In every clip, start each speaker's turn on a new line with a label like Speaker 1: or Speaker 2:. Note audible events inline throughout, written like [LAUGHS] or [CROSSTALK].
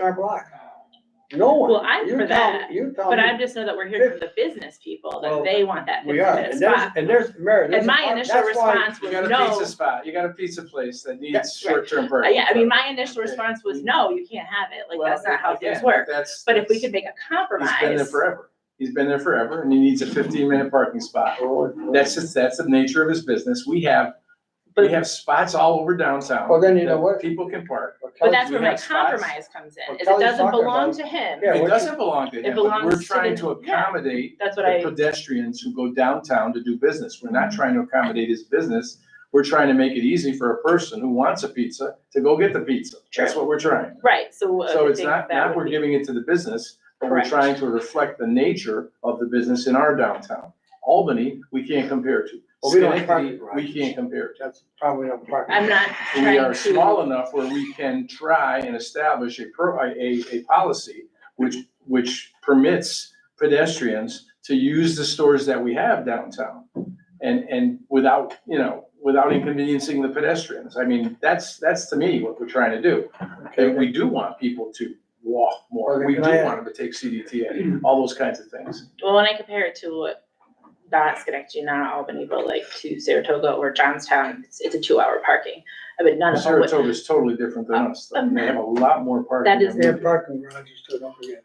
Speaker 1: our block. No one.
Speaker 2: Well, I'm
Speaker 1: You
Speaker 2: for
Speaker 1: tell-
Speaker 2: that,
Speaker 1: You tell
Speaker 3: Um,
Speaker 2: But I
Speaker 1: me,
Speaker 2: just know that we're hearing from the business people,
Speaker 1: Well,
Speaker 2: that they want that
Speaker 1: we are,
Speaker 2: fifteen-minute
Speaker 1: and there's,
Speaker 2: spot.
Speaker 1: and there's merit.
Speaker 2: And my initial response
Speaker 3: You
Speaker 2: was
Speaker 3: got a
Speaker 2: no.
Speaker 3: pizza spot, you got a pizza place that needs
Speaker 1: That's right.
Speaker 3: short-term
Speaker 2: Uh,
Speaker 3: rentals.
Speaker 2: Yeah, I mean, my initial response was, no, you can't have it, like,
Speaker 3: Well,
Speaker 2: that's not how things
Speaker 3: again,
Speaker 2: work.
Speaker 3: That's.
Speaker 2: But if we
Speaker 3: that's-
Speaker 2: could make a
Speaker 3: He's been there
Speaker 2: compromise,
Speaker 3: forever. He's been there forever and he needs a fifteen-minute parking spot. That's just, that's the nature of his business. We have, we
Speaker 2: But-
Speaker 3: have spots all over downtown.
Speaker 1: Well, then you know
Speaker 3: that
Speaker 1: what?
Speaker 3: People can park.
Speaker 2: but that's
Speaker 3: we
Speaker 2: where my
Speaker 3: have spots.
Speaker 2: compromise comes in,
Speaker 1: Well,
Speaker 2: is it
Speaker 1: Kelly's
Speaker 2: doesn't
Speaker 1: talking
Speaker 2: belong
Speaker 1: about-
Speaker 2: to him.
Speaker 1: Yeah,
Speaker 3: It
Speaker 1: what-
Speaker 3: doesn't belong to
Speaker 2: It
Speaker 3: him, but
Speaker 2: belongs
Speaker 3: we're
Speaker 2: to
Speaker 3: trying
Speaker 2: the-
Speaker 3: to
Speaker 2: yeah.
Speaker 3: accommodate
Speaker 2: That's what
Speaker 3: the
Speaker 2: I, Mm-hmm.
Speaker 3: pedestrians who go downtown to do business. We're not trying to accommodate his business. We're trying to make it easy for a person who wants a pizza to go get the pizza. That's what we're trying.
Speaker 2: right, so. I
Speaker 3: So
Speaker 2: would
Speaker 3: it's
Speaker 2: think
Speaker 3: not,
Speaker 2: that
Speaker 3: not
Speaker 2: would
Speaker 3: we're
Speaker 2: be-
Speaker 3: giving it to the business, but we're
Speaker 2: Correct.
Speaker 3: trying to reflect the nature of the business in our downtown. Albany, we can't compare to.
Speaker 1: Well, we don't have
Speaker 3: Schenectady,
Speaker 1: parking
Speaker 3: we
Speaker 1: garages.
Speaker 3: can't compare to.
Speaker 1: That's probably not part.
Speaker 2: I'm not
Speaker 3: [LAUGHS] We are
Speaker 2: trying
Speaker 3: small
Speaker 2: to,
Speaker 3: enough where we can try and establish a pro, a, a, a policy which, which permits pedestrians to use the stores that we have downtown. And, and without, you know, without inconveniencing the pedestrians. I mean, that's, that's to me what we're trying to do. And we do want people to walk more.
Speaker 1: Okay,
Speaker 3: We do
Speaker 1: can I-
Speaker 3: want them to take CDTA, all those kinds of things.
Speaker 2: well, when I compare it to what, not Schenectady, not Albany, but like to Saratoga or Johnstown, it's, it's a two-hour parking. I mean, none of them would,
Speaker 3: Saratoga is totally different than us. though. They have a lot more parking.
Speaker 2: That is
Speaker 3: than we
Speaker 1: They
Speaker 3: do.
Speaker 1: have parking garages too, don't forget.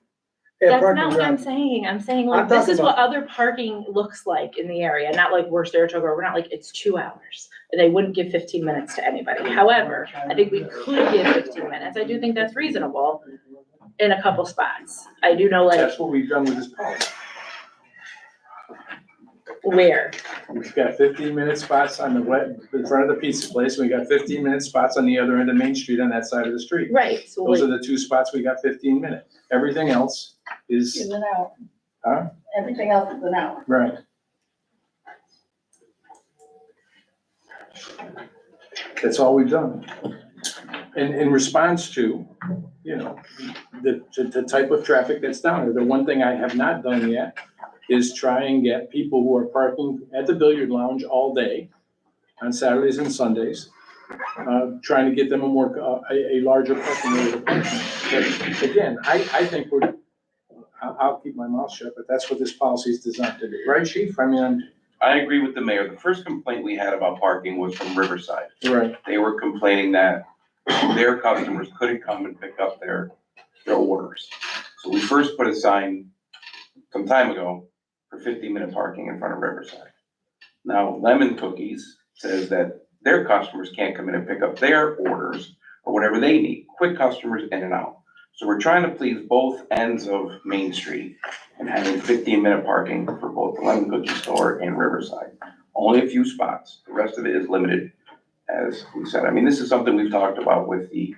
Speaker 1: They have
Speaker 2: that's
Speaker 1: parking
Speaker 2: not what I'm
Speaker 1: garages.
Speaker 2: saying, I'm saying
Speaker 1: I'm
Speaker 2: like, this
Speaker 1: talking
Speaker 2: is what other parking looks like in the area, not like we're Saratoga, we're not like, it's two hours. And they wouldn't give fifteen minutes to anybody, however, I think we could give fifteen minutes, I do think that's reasonable in a couple spots. I do know like
Speaker 3: That's what we've done with this policy.
Speaker 2: where,
Speaker 3: We've got fifteen minute spots on the wet, in front of the pizza place, and we got fifteen minute spots on the other end of Main Street on that side of the street.
Speaker 2: right, so
Speaker 3: Those
Speaker 2: like,
Speaker 3: are the two spots we got fifteen minute. Everything else
Speaker 4: Is
Speaker 3: is,
Speaker 4: an hour.
Speaker 3: Huh?
Speaker 4: Everything else is an hour.
Speaker 3: right, that's all we've done. In, in response to, you know, the, to the type of traffic that's down there. The one thing I have not done yet is try and get people who are parking at the billiard lounge all day on Saturdays and Sundays, uh, trying to get them a more, uh, a, a larger parking area. to park in. But Again, I, I think we're, I'll, I'll keep my mouth shut, but that's what this policy is designed to do, right, chief? I mean, I'm,
Speaker 5: I agree with the mayor. The first complaint we had about parking was from Riverside.
Speaker 3: right,
Speaker 5: They were complaining that their customers couldn't come and pick up their, their orders. So we first put a sign some time ago for fifteen-minute parking in front of Riverside. Now Lemon Cookies says that their customers can't come in and pick up their orders or whatever they need, quick customers in and out. So we're trying to please both ends of Main Street and having fifteen-minute parking for both the Lemon Cookie Store and Riverside. Only a few spots, the rest of it is limited, as we said. I mean, this is something we've talked about with the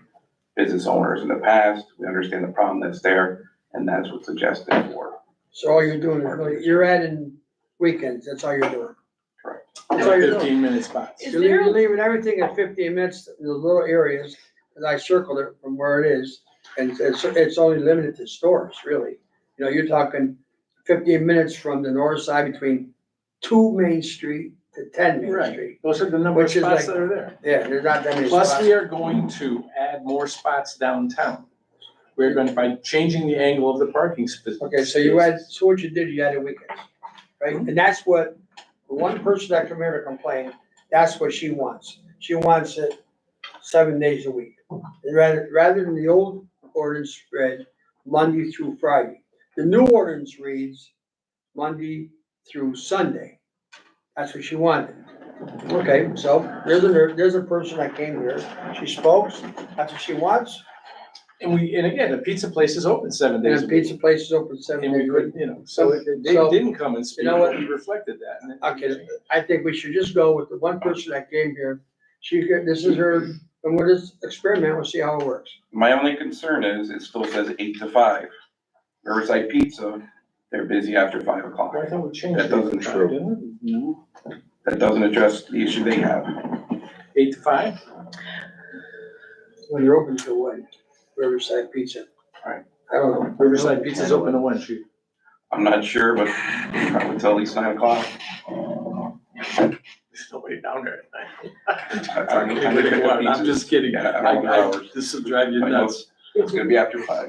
Speaker 5: business owners in the past. We understand the problem that's there, and that's what's suggested for.
Speaker 1: So all you're doing is, really- you're adding weekends, that's all you're doing.
Speaker 5: Correct.
Speaker 1: That's all you're doing.
Speaker 3: fifteen minute spots.
Speaker 2: Is
Speaker 1: You're leaving-
Speaker 2: there-
Speaker 1: you're leaving everything at fifteen minutes, in those little areas, and I circled it from where it is, and it's, it's only limited to stores, really. You know, you're talking fifteen minutes from the north side between two Main Street to ten Main
Speaker 3: Right.
Speaker 1: Street.
Speaker 3: Those are the number of
Speaker 1: Which is
Speaker 3: spots
Speaker 1: like-
Speaker 3: that are there.
Speaker 1: Yeah, there's not that many
Speaker 3: Plus,
Speaker 1: spots.
Speaker 3: we are going to add more spots downtown. We're going to, by changing the angle of the parking space.
Speaker 1: Okay, so you had, so what you did, you added weekends, right?
Speaker 3: Mm-hmm.
Speaker 1: And that's what, the one person that come here to complain, that's what she wants. She wants it seven days a week. And Rather, rather than the old ordinance read Monday through Friday. The new ordinance reads Monday through Sunday. That's what she wanted. Okay, so there's a, there's a person that came here, she spoke, that's what she wants.
Speaker 3: And we, and again, the pizza place is open seven
Speaker 1: And
Speaker 3: days
Speaker 1: the
Speaker 3: a week.
Speaker 1: pizza place is open seven
Speaker 3: And
Speaker 1: days
Speaker 3: we
Speaker 1: a week.
Speaker 3: could, you know, so
Speaker 1: So-
Speaker 3: they
Speaker 1: so-
Speaker 3: didn't come and speak,
Speaker 1: know what?
Speaker 3: we reflected that. and it-
Speaker 1: Okay, I think we should just go with the one person that came here. She, could- this is her, and we'll just experiment, we'll see how it works.
Speaker 5: My only concern is, it still says eight to five. Riverside Pizza, they're busy after five o'clock.
Speaker 3: I thought we changed.
Speaker 5: That
Speaker 3: it.
Speaker 5: doesn't true.
Speaker 3: Didn't we? No.
Speaker 5: That doesn't address the issue they have.
Speaker 3: Eight to five?
Speaker 1: When you're open till when? Riverside Pizza.
Speaker 5: Right.
Speaker 1: I don't know.
Speaker 3: Riverside Pizza's open to one, shoot.
Speaker 5: I'm not sure, but probably until at least nine o'clock.
Speaker 3: There's nobody down there at night.
Speaker 5: I- I-
Speaker 3: I'm [LAUGHS] just kidding.
Speaker 5: Yeah, I don't know.
Speaker 3: I- I- This will drive you
Speaker 5: I know
Speaker 3: nuts.
Speaker 5: It's gonna be after five.